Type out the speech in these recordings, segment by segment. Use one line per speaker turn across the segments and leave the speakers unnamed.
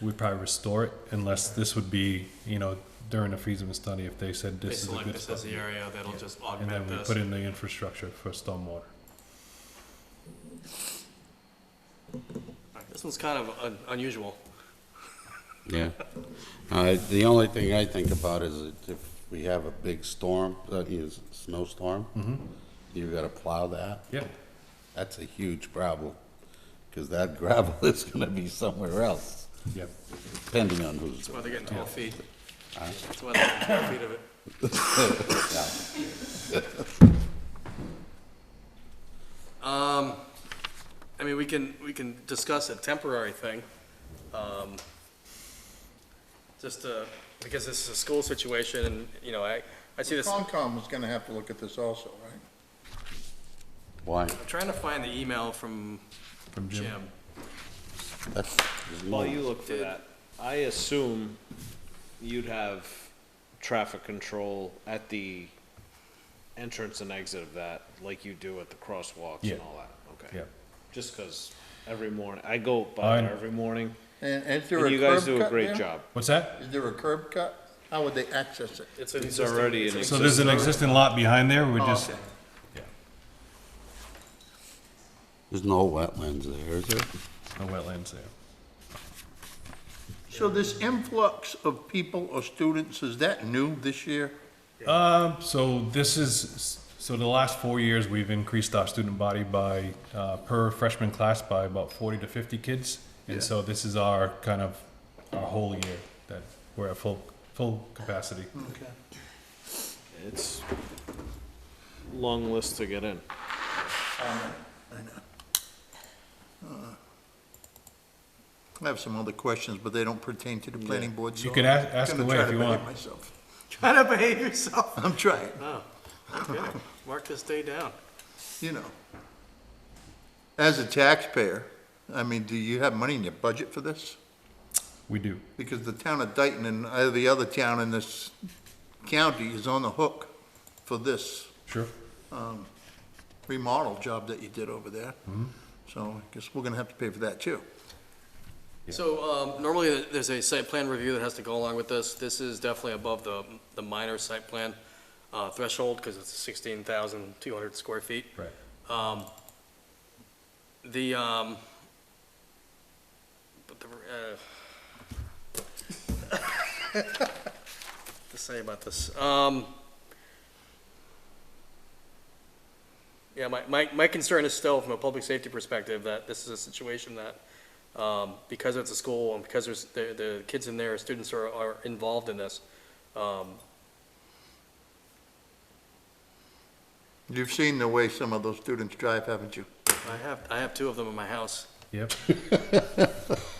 we'd probably restore it unless this would be, you know, during a feasibility study, if they said
They
this is a
select
good
this as
spot.
the area that'll just
And then
augment
we
this.
put in the infrastructure for stormwater.
Alright, This one's kind of un- unusual.
Yeah. Uh, The only thing I think about is that if we have a big storm, uh, you know, s- snowstorm, you gotta plow that.
Yeah,
That's a huge problem, because that gravel is gonna be somewhere else,
yeah.
depending on who's
That's why
doing
they're getting twelve feet. That's why they're getting twelve feet of it.
it. Yeah.
Um, I mean, we can, we can discuss a temporary thing. um, Just, uh, because this is a school situation and, you know, I, I see this, I'm
Concom is gonna have to look at this also, right?
Why?
trying to find the email from
From Jim.
Jim.
That's- there's no-
While you look for that, I assume you'd have traffic control at the entrance and exit of that, like you do at the crosswalks
Yeah.
and all that, okay?
Yeah.
Just 'cause every morning, I go by
I-
there every morning,
And and is there
and
a curb cut
you guys do a great
there?
job.
What's that?
Is there a curb cut? How would they access it?
It's an
It's
existing-
already
it's
an
So there's an existing lot behind there, we
Oh,
just,
okay.
There's no wetlands there, is there?
no wetlands there.
So this influx of people or students, is that new this year?
Um, so this is, so the last four years, we've increased our student body by, uh, per freshman class by about forty to fifty kids. And so this is our kind of, our whole year that we're at full, full capacity.
Okay.
It's a long list to get in.
I have some other questions, but they don't pertain to the planning board, so.
You can ask- ask
I'm gonna
away
try
if
to
you
behave
want.
myself.
Try to behave yourself.
I'm trying,
Oh, okay. Mark this day down.
you know. As a taxpayer, I mean, do you have money in your budget for this?
We do.
Because the town of Dayton and every other town in this county is on the hook for this
Sure.
remodel job that you did over there.
Mm-hmm.
So I guess we're gonna have to pay for that too.
So, um, normally th- there's a site plan review that has to go along with this. This is definitely above the, the minor site plan, uh, threshold, because it's sixteen thousand two hundred square feet.
Right.
Um, the, um, but the, uh, to uh, say about this, um, yeah, my, my, my concern is still from a public safety perspective that this is a situation that um, because it's a school and because there's, the, the kids in there, students are, are involved in this. Um,
You've seen the way some of those students drive, haven't you?
I have, I have two of them in my house.
Yep.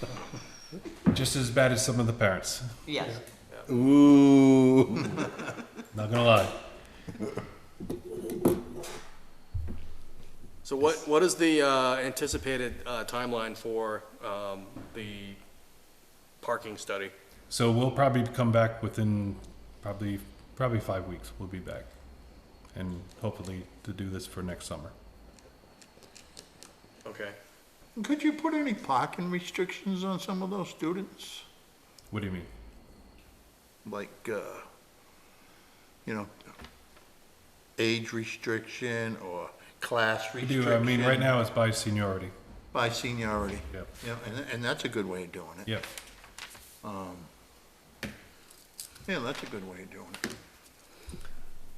Just as bad as some of the parents,
Yes.
Ooh.
not gonna lie.
So what, what is the uh, anticipated uh, timeline for um, the parking study?
So we'll probably come back within probably, probably five weeks, we'll be back. And hopefully to do this for next summer.
Okay.
Could you put any parking restrictions on some of those students?
What do you mean?
Like, uh, you know, age restriction or class
We
restriction?
do, I mean, right now it's by seniority.
By seniority.
Yep.
Yeah, and, and that's a good way of doing it.
Yep.
Yeah, that's a good way of doing it.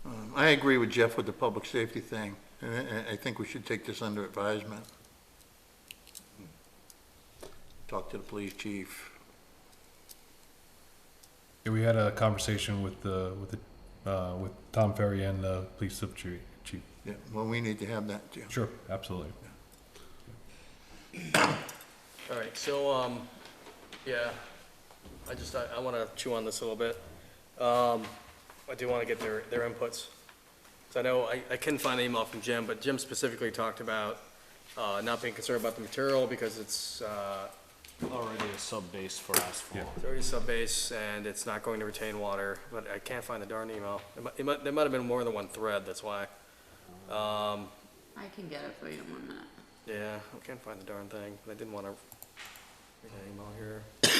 Um, I agree with Jeff with the public safety thing, and I- I, I think we should take this under advisement. Talk to the police chief.
Yeah, we had a conversation with the, with the, uh, with Tom Ferry and the police sub chief. chief.
Yeah, well, we need to have that too.
Sure, absolutely.
All right, so, um, yeah, I just, I, I want to chew on this a little bit. Um, I do want to get their, their inputs. So I know, I, I couldn't find an email from Jim, but Jim specifically talked about uh, not being concerned about the material because it's uh,
Already a sub-base for asphalt.
it's already sub-base and it's not going to retain water, but I can't find the darn email. It might- It might, there might have been more than one thread, that's why. Um,
I can get it for you in one minute.
Yeah, I can't find the darn thing, but I didn't wanna read that email here.